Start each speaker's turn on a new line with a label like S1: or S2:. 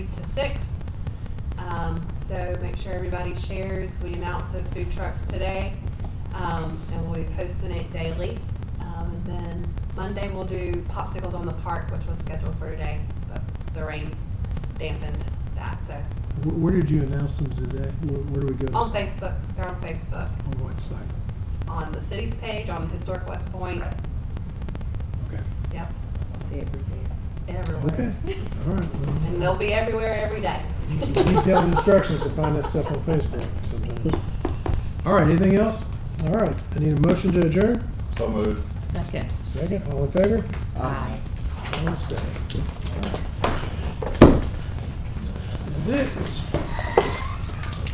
S1: to six. Um, so make sure everybody shares. We announced those food trucks today, um, and we'll be posting it daily. Um, and then Monday we'll do popsicles on the park, which was scheduled for today, but the rain dampened that. So
S2: Wh- Where did you announce them today? Where, where do we go?
S1: on Facebook, they're on Facebook,
S2: On what site?
S1: on the city's page, on Historic West Point.
S2: Okay,
S1: Yep,
S3: See everything.
S1: everywhere.
S2: okay, all right. well,
S1: And they'll be everywhere every day.
S2: Detailed instructions to find that stuff on Facebook sometimes. All right, anything else? All right, I need a motion to adjourn.
S4: So moved.
S3: Second.
S2: Second, all in favor?
S3: Aye.
S2: All in favor. That's it.